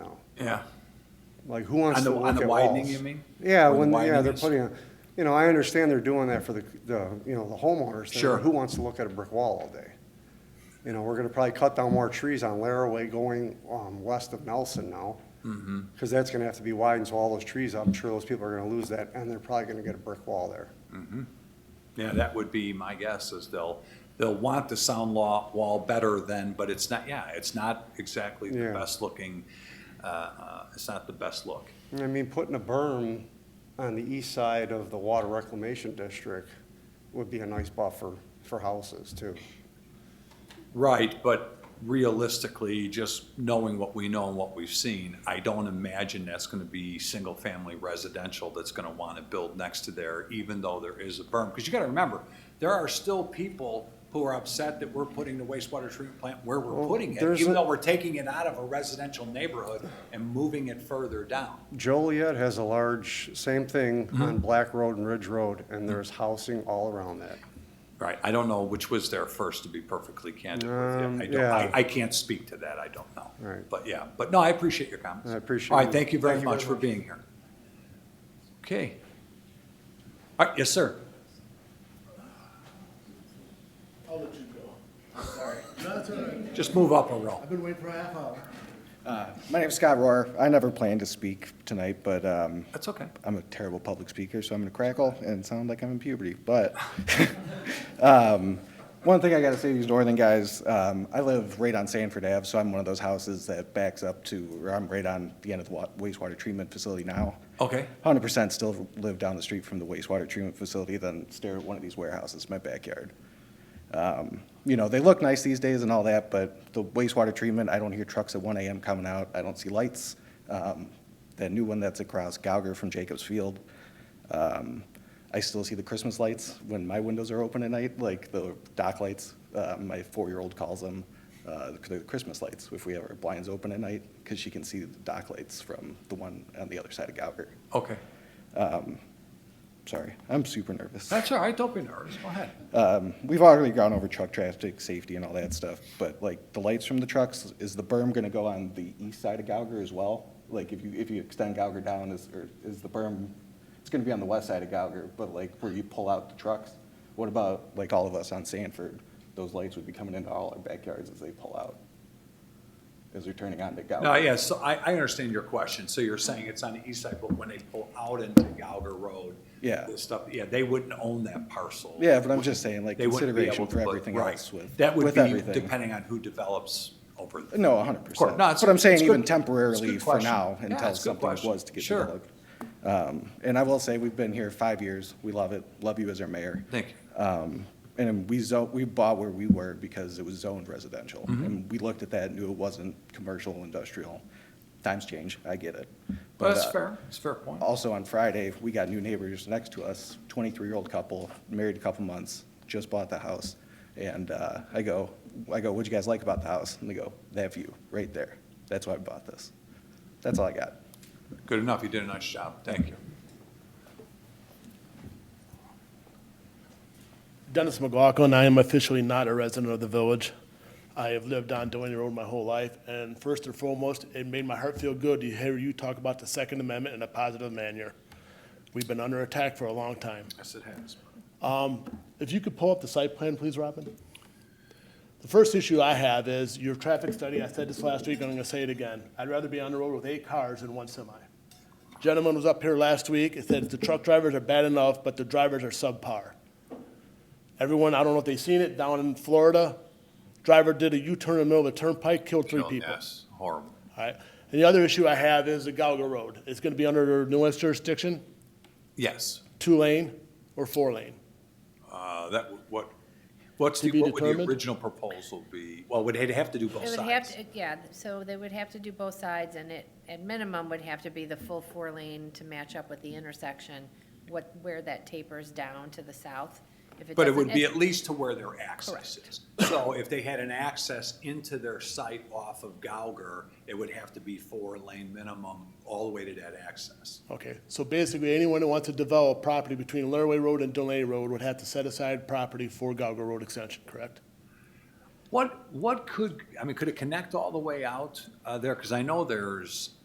Yeah. Like, who wants On to the, look on at the walls? widening, you mean? Yeah, Where the when, yeah, widening they're is? putting, a- you know, I understand they're doing that for the, the, you know, the homeowners. thing, but Sure. Who wants to look at a brick wall all day? You know, we're gonna probably cut down more trees on Laraway going, um, west of Nelson now. Mm-hmm. Cause that's gonna have to be widened, so all those trees, I'm sure those people are gonna lose that, and they're probably gonna get a brick wall there. Yeah, that would be my guess is they'll, they'll want the sound law wall better than, but it's not, yeah, it's not exactly the Yeah. best looking, uh, uh, it's not the best look. I mean, putting a berm on the east side of the water reclamation district would be a nice buffer for houses too. Right, but realistically, just knowing what we know and what we've seen, I don't imagine that's gonna be single-family residential that's gonna wanna build next to there, even though there is a berm. Because you gotta remember, there are still people who are upset that we're putting the wastewater treatment plant where we're Well, putting it, there's even a- though we're taking it out of a residential neighborhood and moving it further down. Joliet has a large, same thing on Black Road and Ridge Road, and there's housing all around that. Right, I don't know which was there first, to be perfectly candid with Um, you. I don't, I, yeah. I can't speak to that, I don't know. Right. But yeah, but no, I appreciate your comments. I appreciate All right, you. thank you very Thank you very much for much. being here. Okay. All right, yes, sir. I'll let you go. Sorry. No, that's all right. Just move up a row. I've been waiting for a half hour. My name's Scott Rohr. I never planned to speak tonight, but um, That's okay. I'm a terrible public speaker, so I'm going to crackle and sound like I'm in puberty. But um, one thing I got to say to these northern guys, um, I live right on Sanford Ave, so I'm one of those houses that backs up to, or I'm right on the end of the wa- wastewater treatment facility now. Okay, 100% still live down the street from the wastewater treatment facility, then stare at one of these warehouses in my backyard. Um, You know, they look nice these days and all that, but the wastewater treatment, I don't hear trucks at 1 AM coming out, I don't see lights. Um, That new one that's across Gauger from Jacobs Field, um, I still see the Christmas lights when my windows are open at night, like the dock lights. Uh, My four-year-old calls them uh, the Christmas lights, if we have our blinds open at night, because she can see the dock lights from the one on the other side of Gauger. okay. Sorry, I'm super nervous. That's all right, don't be nervous, go ahead. Um, We've already gone over truck traffic, safety and all that stuff, but like the lights from the trucks, is the berm gonna go on the east side of Gauger as well? Like if you, if you extend Gauger down, is, or is the berm, it's gonna be on the west side of Gauger, but like where you pull out the trucks? What about like all of us on Sanford? Those lights would be coming into all our backyards as they pull out, as they're turning on to Gauger. No, Uh, yeah, so I, I understand your question. So you're saying it's on the east side, but when they pull out into Gauger Road. Yeah. This stuff, yeah, they wouldn't own that parcel. Yeah, but I'm just saying, like, They wouldn't be able consideration to for put- everything right. else with, That would with be everything. depending on who develops over. the- No, hundred Of course. percent. No, it's- But I'm it's saying a even good- it's a temporarily good for question. now Yeah, until it's a good something question. was to get Sure. developed. Um, and I will say, we've been here five years. We love it. Love you as our mayor. Thank you. Um, and we zo we bought where we were because it was zoned residential. Mm-hmm. And we looked at that and knew it wasn't commercial, industrial. Times change. I get it. But, That's uh, fair, it's a fair point. Also, on Friday, we got new neighbors next to us, 23-year-old couple, married a couple months, just bought the house. And uh, I go, I go, what'd you guys like about the house? And they go, that view, right there. That's why I bought this. That's all I got. Good enough, you did a nice job, thank you. Dennis McLaughlin, I am officially not a resident of the village. I have lived on Delaney Road my whole life, and first and foremost, it made my heart feel good to hear you talk about the Second Amendment in a positive manner. We've been under attack for a long time. Yes, it has. If you could pull up the site plan, please, Robin. The first issue I have is your traffic study. I said this last week, and I'm gonna say it again. I'd rather be on the road with eight cars than one semi. Gentleman was up here last week and said the truck drivers are bad enough, but the drivers are subpar. Everyone, I don't know if they seen it, down in Florida, driver did a U-turn in the middle of the turnpike, killed three people. Yes, horrible. All right. And the other issue I have is the Galgo Road. It's gonna be under their newest jurisdiction, Yes, two lane or four lane. uh, that, w- what, what's the, To be what would the determined? original proposal be? Well, would it have to do both It would have, sides? to yeah, so they would have to do both sides, and it, at minimum, would have to be the full four lane to match up with the intersection, what, where that tapers down to the south. If But it doesn't- would be at least to where their access is. So if they had an access into their site off of Gauger, it would have to be four lane minimum all the way to that access. Okay, so basically, anyone who wants to develop property between Laraway Road and Delaney Road would have to set aside property for Gauger Road extension, correct? What, what could, I mean, could it connect all the way out uh, there? Because I know there's